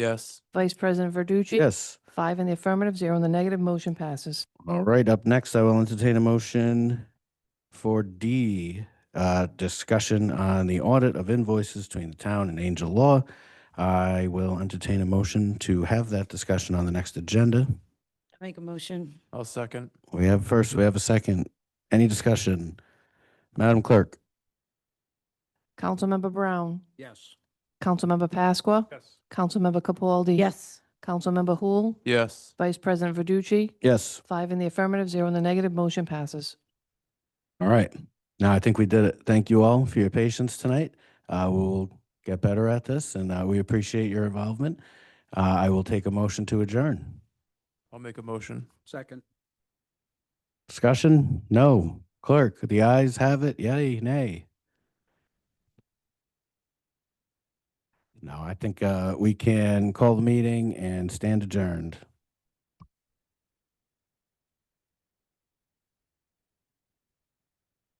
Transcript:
Yes. Vice President Verducci? Yes. Five in the affirmative, zero in the negative, motion passes. All right, up next, I will entertain a motion for D, uh, discussion on the audit of invoices between the town and Angel Law. I will entertain a motion to have that discussion on the next agenda. Make a motion. I'll second. We have first, we have a second. Any discussion? Madam Clerk? Councilmember Brown? Yes. Councilmember Pasqua? Yes. Councilmember Capaldi? Yes. Councilmember Hul? Yes. Vice President Verducci? Yes. Five in the affirmative, zero in the negative, motion passes. All right. Now I think we did it. Thank you all for your patience tonight. Uh, we'll get better at this and, uh, we appreciate your involvement. Uh, I will take a motion to adjourn. I'll make a motion. Second. Discussion? No. Clerk, the ayes have it. Yay, nay. No, I think uh, we can call the meeting and stand adjourned.